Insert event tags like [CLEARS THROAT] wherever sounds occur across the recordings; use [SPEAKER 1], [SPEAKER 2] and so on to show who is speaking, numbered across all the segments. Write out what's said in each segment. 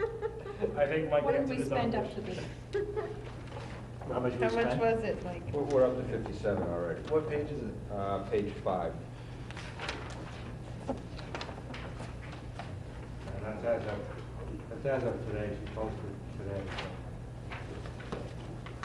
[SPEAKER 1] I think Mike
[SPEAKER 2] What did
[SPEAKER 1] answered
[SPEAKER 2] we
[SPEAKER 1] his
[SPEAKER 2] spend
[SPEAKER 1] own
[SPEAKER 2] up to this?
[SPEAKER 1] question. How much we
[SPEAKER 3] How much
[SPEAKER 1] spent?
[SPEAKER 3] was it, like?
[SPEAKER 4] We're, we're up to fifty-seven already.
[SPEAKER 1] What page is it?
[SPEAKER 4] Uh, page five.
[SPEAKER 5] And that's as of, that's as of today, she posted today.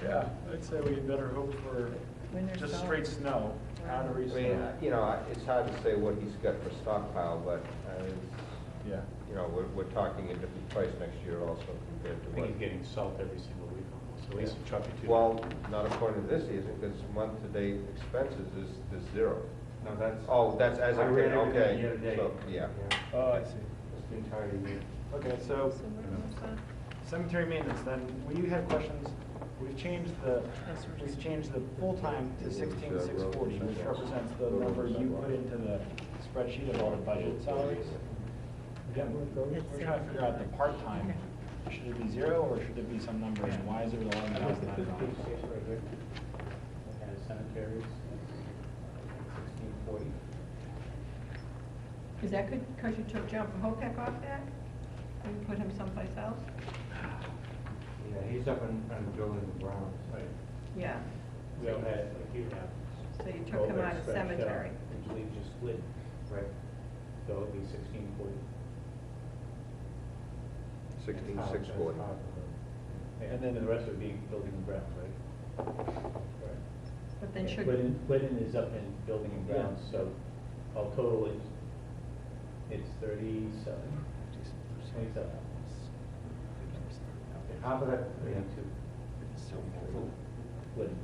[SPEAKER 1] Yeah, I'd say we better hope for
[SPEAKER 3] Winter
[SPEAKER 1] just
[SPEAKER 3] solid.
[SPEAKER 1] straight snow,
[SPEAKER 3] Wow.
[SPEAKER 1] honorary
[SPEAKER 4] I mean,
[SPEAKER 1] snow.
[SPEAKER 4] you know, I- it's hard to say what he's got for stockpile, but, uh, it's-
[SPEAKER 1] Yeah.
[SPEAKER 4] you know, we're, we're talking a different price next year also compared to
[SPEAKER 6] I
[SPEAKER 4] what.
[SPEAKER 6] think he's getting salt every single week almost, at least a truck or two.
[SPEAKER 4] Well, not according to this season, because month-to-date expenses is, is zero.
[SPEAKER 5] No, that's.
[SPEAKER 4] Oh, that's as
[SPEAKER 5] I
[SPEAKER 4] of
[SPEAKER 5] read
[SPEAKER 4] today,
[SPEAKER 5] everything
[SPEAKER 4] okay.
[SPEAKER 5] year to date.
[SPEAKER 4] So, yeah.
[SPEAKER 1] Oh, I see.
[SPEAKER 5] Just the entire year.
[SPEAKER 1] Okay, so
[SPEAKER 3] So where was that?
[SPEAKER 1] cemetery maintenance, then, we had questions, we've changed the,
[SPEAKER 3] That's what
[SPEAKER 1] we've changed the full-time to sixteen six forty, which represents the number you put into the spreadsheet of all the budget salaries. Again, we're we're trying to figure out the
[SPEAKER 3] [LAUGHS]
[SPEAKER 1] part-time, should it be zero, or should it be some number, and why is it eleven thousand nine dollars?
[SPEAKER 6] And cemeteries, sixteen forty.
[SPEAKER 2] Is that good, because you took John Hopek off that? And you put him someplace else?
[SPEAKER 5] Yeah, he's up in, in building the Browns.
[SPEAKER 6] Right.
[SPEAKER 2] Yeah,
[SPEAKER 6] We all had, like you have.
[SPEAKER 2] so you took him out of cemetery.
[SPEAKER 6] Which leaves you split,
[SPEAKER 5] Right.
[SPEAKER 6] so it'd be sixteen forty.
[SPEAKER 4] Sixteen,
[SPEAKER 5] That's
[SPEAKER 4] six
[SPEAKER 5] hard-
[SPEAKER 4] forty.
[SPEAKER 5] that's hard to know.
[SPEAKER 6] And then the rest would be building and grounds, right?
[SPEAKER 2] But then
[SPEAKER 6] Yeah,
[SPEAKER 2] should,
[SPEAKER 6] Glidden, Glidden is up in building and grounds, so all total it's, it's thirty-seven, twenty-seven.
[SPEAKER 5] How about that?
[SPEAKER 6] Thirty-two. Glidden.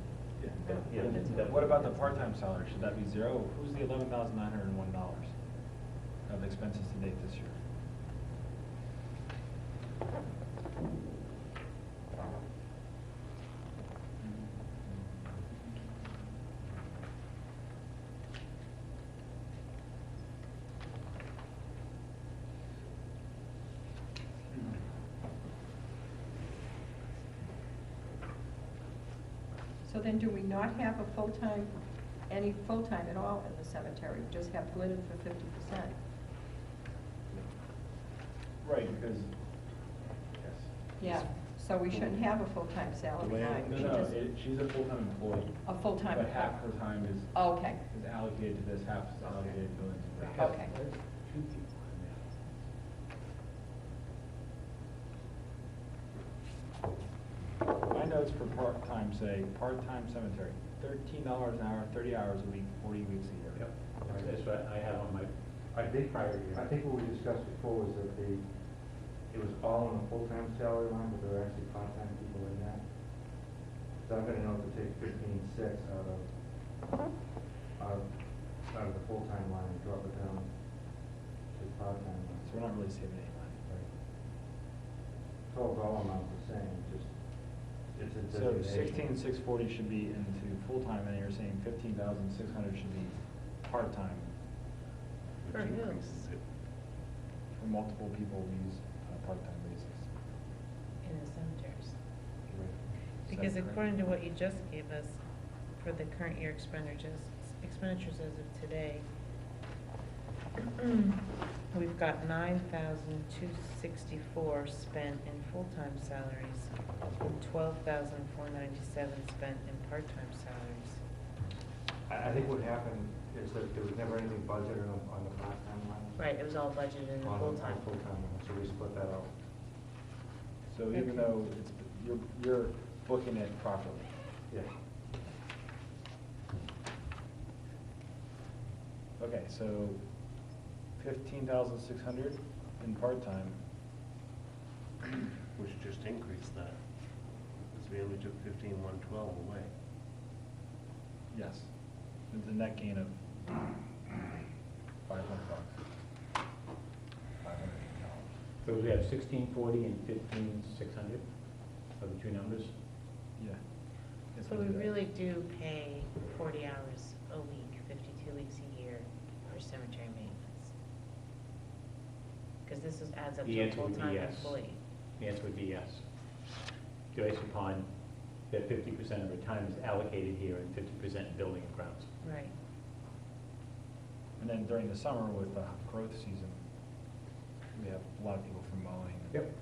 [SPEAKER 5] Yeah.
[SPEAKER 6] Glidden's
[SPEAKER 1] What about the part-time salary, should that be zero? Who's the eleven thousand nine hundred and one dollars of expenses to date this year?
[SPEAKER 2] so then do we not have a full-time, any full-time at all in the cemetery? Just have Glidden for fifty percent?
[SPEAKER 1] Right, because.
[SPEAKER 2] Yeah, so we shouldn't have a full-time salary line.
[SPEAKER 1] No,
[SPEAKER 2] We
[SPEAKER 1] no,
[SPEAKER 2] just-
[SPEAKER 1] it- she's a full-time employee.
[SPEAKER 2] A full-time. Oh,
[SPEAKER 1] But half her time is,
[SPEAKER 2] Okay,
[SPEAKER 1] is allocated to this, half is allocated to buildings. and grounds.
[SPEAKER 2] okay.
[SPEAKER 1] My notes for part-time say, part-time cemetery, thirteen dollars an hour, thirty hours a week, forty weeks a year.
[SPEAKER 6] Yep, That's- that's what I have on my,
[SPEAKER 5] I think,
[SPEAKER 6] prior year.
[SPEAKER 5] I think what we discussed before was that the, it was all on the full-time salary line, but there were actually part-time people in that. So I'm gonna know if to take fifteen-six out of, out of, out of the full-time line and drop it down to the part-time line.
[SPEAKER 1] So we're not really saving any money.
[SPEAKER 5] Total dollar amount's the same, just, it's a
[SPEAKER 1] So
[SPEAKER 5] designation.
[SPEAKER 1] sixteen, six forty should be into full-time, and you're saying fifteen thousand, six hundred should be part-time
[SPEAKER 3] For who?
[SPEAKER 1] for multiple people we use on a part-time basis.
[SPEAKER 3] In the cemeteries.
[SPEAKER 1] Is that
[SPEAKER 3] Because
[SPEAKER 1] correct?
[SPEAKER 3] according to what you just gave us for the current year expenditures, expenditures as of today, [CLEARS THROAT] we've got nine thousand two sixty-four spent in full-time salaries, and twelve thousand four ninety-seven spent in part-time salaries.
[SPEAKER 5] I, I think what happened is that there was never anything budgeted on, on the part-time line.
[SPEAKER 3] Right, it was all budgeted in the
[SPEAKER 5] On, on
[SPEAKER 3] full-time.
[SPEAKER 5] full-time line, so we split that out.
[SPEAKER 1] So even though it's, you're, you're booking it properly.
[SPEAKER 5] Yeah.
[SPEAKER 1] Okay, so fifteen thousand six hundred in part-time.
[SPEAKER 7] which just increased that, because we only took fifteen one twelve away.
[SPEAKER 1] Yes. It's a net gain of five hundred bucks. Five hundred dollars.
[SPEAKER 6] So we have sixteen forty and fifteen six hundred, are the two numbers?
[SPEAKER 1] Yeah. Yes,
[SPEAKER 3] So
[SPEAKER 1] we
[SPEAKER 3] we
[SPEAKER 1] do that.
[SPEAKER 3] really do pay forty hours a week, fifty-two weeks a year for cemetery maintenance. Because this is adds up
[SPEAKER 6] The
[SPEAKER 3] to a
[SPEAKER 6] answer would be
[SPEAKER 3] full-time
[SPEAKER 6] yes.
[SPEAKER 3] employee.
[SPEAKER 6] The answer would be yes. Based upon that fifty percent of our time is allocated here and fifty percent building and grounds.
[SPEAKER 3] Right.
[SPEAKER 1] And uh, then during the summer with the growth season, we have a lot of people from mowing.
[SPEAKER 6] Yep.